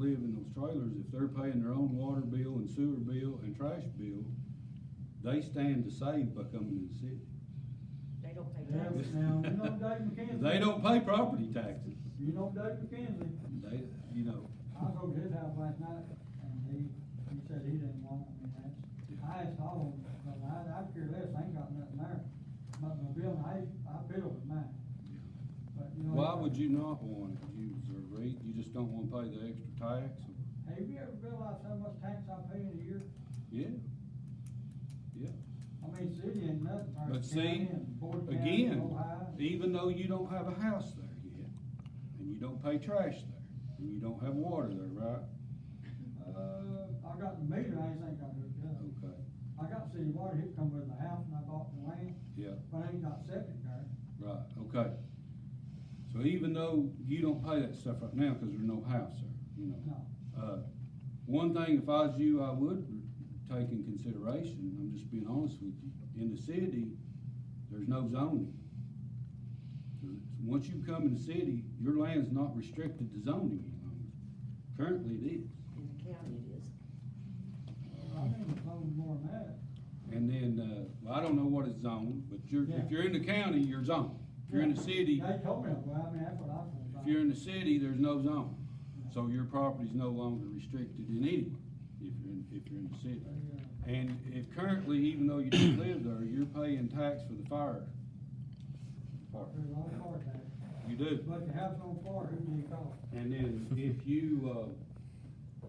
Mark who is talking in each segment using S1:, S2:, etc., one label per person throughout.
S1: live in those trailers, if they're paying their own water bill and sewer bill and trash bill, they stand to save by coming to the city.
S2: They don't pay
S3: Now,
S2: taxes.
S3: now, you know Dave McKenzie.
S1: They don't pay property taxes.
S3: You know Dave McKenzie.
S1: They, you know,
S3: I was over to his house last night and he, he said he didn't want me that. I asked all of them, but I, I care less, I ain't got nothing there. But my bill, I, I bill with mine. But you know.
S1: why would you not want to use their rate? You just don't want to pay the extra tax? or-
S3: Have you ever realized how much tax I pay in a year?
S1: Yeah. Yeah.
S3: I mean, city and nothing. or
S1: But see,
S3: county and Board of County,
S1: again, e-
S3: Ohio.
S1: even though you don't have a house there yet, and you don't pay trash there, and you don't have water there, right?
S3: Uh, I got the meter, I ain't think I hooked up.
S1: Okay,
S3: I got city water, it come with the house and I bought the land,
S1: yeah,
S3: but I ain't got septic there.
S1: right, okay. So even though you don't pay that stuff right now, cause there's no house there, you know?
S3: No.
S1: Uh, one thing, if I was you, I would take in consideration, I'm just being honest with you, in the city, there's no zoning. Once you come in the city, your land's not restricted to zoning any longer. Currently, it is.
S2: In the county it is.
S3: I think it's only more than that.
S1: And then, uh, well, I don't know what it's zoned, but you're,
S3: Yeah.
S1: if you're in the county, you're zoned. If you're in the city,
S3: They told me, that, well, I mean, that's what I thought.
S1: if you're in the city, there's no zone. So your property's no longer restricted in anywhere, if you're in, if you're in the city. And if currently, even though you don't live there, you're paying tax for the fire department.
S3: There's a lot of cars there.
S1: You do.
S3: But the house on fire, who do you call?
S1: And then if you, uh,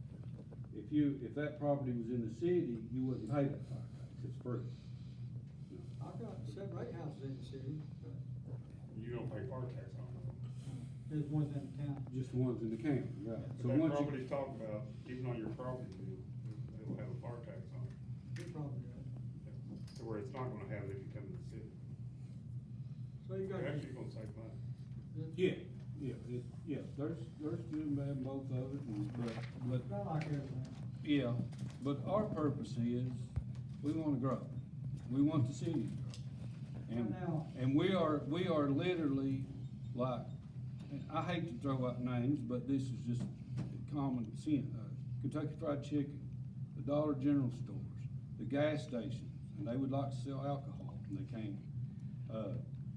S1: if you, if that property was in the city, you wouldn't pay that fire tax, it's free.
S3: I've got seven, eight houses in the city, but
S4: You don't pay fire tax on it.
S3: there's ones in town.
S1: Just the ones in the county, right? So
S4: But that
S1: once you-
S4: property talked about, even on your property bill, it'll have a fire tax on it,
S3: You probably do.
S4: to where it's not gonna have it if you come to the city.
S3: So you
S4: You're actually gonna save money.
S1: Yeah, yeah, it, yeah, there's, there's good and bad in both of it, and- but, but,
S3: Not like everything.
S1: yeah, but our purpose is, we wanna grow. We want the city to grow. And,
S3: Now-
S1: and we are, we are literally like, and I hate to throw out names, but this is just common sense. Uh, Kentucky Fried Chicken, the Dollar General stores, the gas stations, and they would like to sell alcohol, and they can't. Uh,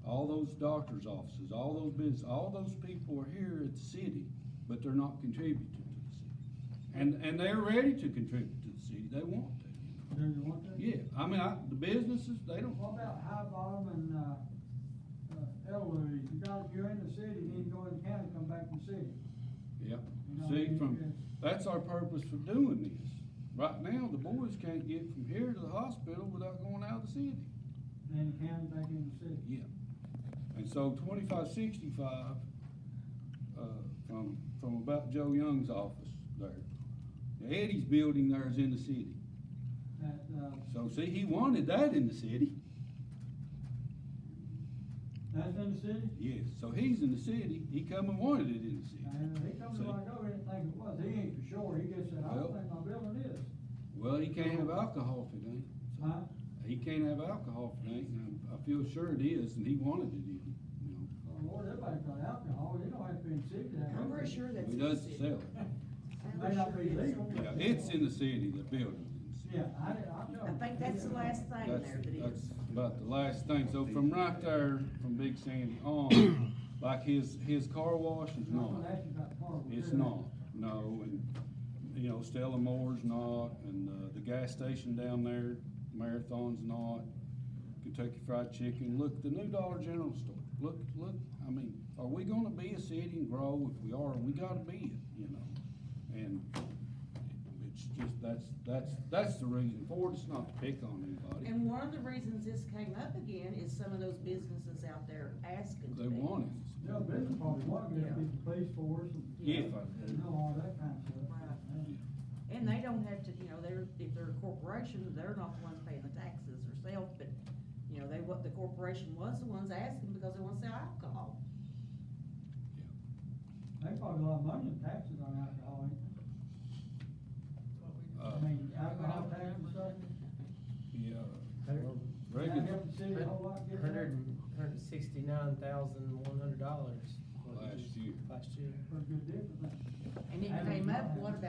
S1: all those doctors' offices, all those business, all those people are here at the city, but they're not contributing to the city. And, and they're ready to contribute to the city, they want to.
S3: Do you want to?
S1: Yeah, I mean, I, the businesses, they don't,
S3: What about High Bottom and, uh, uh, Ellery? You got, you're in the city, you need to go in the county, come back to the city.
S1: yeah.
S3: You know,
S1: See,
S3: you
S1: from,
S3: just-
S1: that's our purpose for doing this. Right now, the boys can't get from here to the hospital without going out of the city.
S3: Then the county back in the city.
S1: Yeah. And so twenty-five sixty-five, uh, from, from about Joe Young's office there. Now, Eddie's building there is in the city.
S3: That, uh,
S1: So see, he wanted that in the city.
S3: that's in the city?
S1: Yes, so he's in the city, he come and wanted it in the city.
S3: And he comes to like, oh, he didn't think it was, he ain't for sure, he just said, I don't
S1: Well-
S3: think my building is.
S1: Well, he can't have alcohol if it ain't.
S3: Huh?
S1: He can't have alcohol if it ain't, and I I feel sure it is, and he wanted it in, you know.
S3: Well, oh, Lord, everybody's got alcohol, you don't have to be in the city to have.
S2: I'm
S3: it.
S2: pretty sure that's.
S1: He
S2: in the
S1: does
S2: city.
S1: sell it.
S2: I'm
S3: May not
S2: pretty
S3: be
S2: sure it is.
S3: legal.
S1: Yeah, it's in the city, the building.
S3: Yeah, I, did- I know.
S2: I think that's the last thing there
S1: That's,
S2: that
S1: that's
S2: is.
S1: about the last thing, so from right there, from Big Sandy on, like his, his car wash is
S3: I'm
S1: not.
S3: gonna ask you about the car.
S1: It's not, no, and, you know, Stella Moore's not, and, uh, the gas station down there, Marathon's not, Kentucky Fried Chicken, look, the new Dollar General store, look, look, I mean, are we gonna be a city and grow? If we are, we gotta be it, you know, and it's just, that's, that's, that's the reason for it, it's not to pick on anybody,
S2: And one of the reasons this came up again is some of those businesses out there asking.
S1: they want it.
S3: Yeah, business probably want to
S2: Yeah.
S3: get the police force and.
S1: Yeah.
S3: You know, all that kind of stuff.
S2: Right.
S3: Yeah.
S2: And they don't have to, you know, they're, if they're a corporation, they're not the ones paying the taxes herself, but, you know, they, what, the corporation was the ones asking because they want to sell alcohol.
S3: They probably a lot of money in taxes on alcohol, ain't they?
S1: Uh,
S3: I mean, alcohol tax and stuff.
S1: yeah,
S5: Hundred-
S3: That
S1: Reagan,
S3: help the city a whole lot get that.
S5: hundred and- hundred and sixty-nine thousand, one hundred dollars.
S6: last year.
S7: last year.
S5: for a good difference.
S3: And it came up, what about